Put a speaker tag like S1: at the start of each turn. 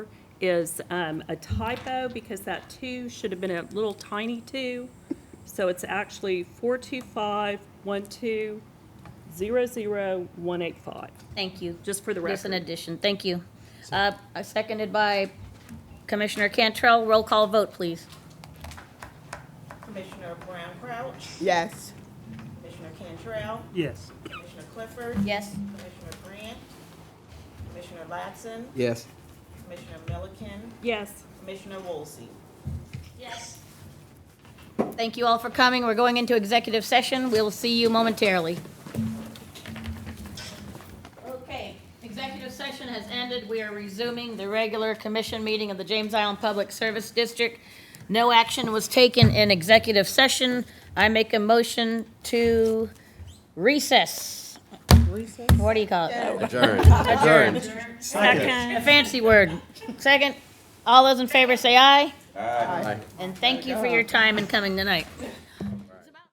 S1: is um, a typo because that two should have been a little tiny two. So it's actually four two five one two zero zero one eight five,
S2: Thank you.
S1: just for the
S2: Just an
S1: record.
S2: addition, thank you. Uh, Seconded by Commissioner Cantrell, roll call vote, please.
S3: Commissioner Brown Crouch,
S4: Yes.
S3: Commissioner Cantrell,
S5: Yes.
S3: Commissioner Clifford.
S2: Yes.
S3: Commissioner Grant, Commissioner Latson,
S6: Yes.
S3: Commissioner Milliken,
S1: Yes.
S3: Commissioner Wolsey.
S2: Thank you all for coming, we're going into executive session, we'll see you momentarily. Okay, executive session has ended, we are resuming the regular commission meeting of the James Island Public Service District. No action was taken in executive session, I make a motion to recess. Recess? What do you call it?
S6: Adjourned.
S2: Adjourned.
S1: Second.
S2: A fancy word. Second, all those in favor say aye,
S6: Aye.
S2: and thank you for your time and coming tonight.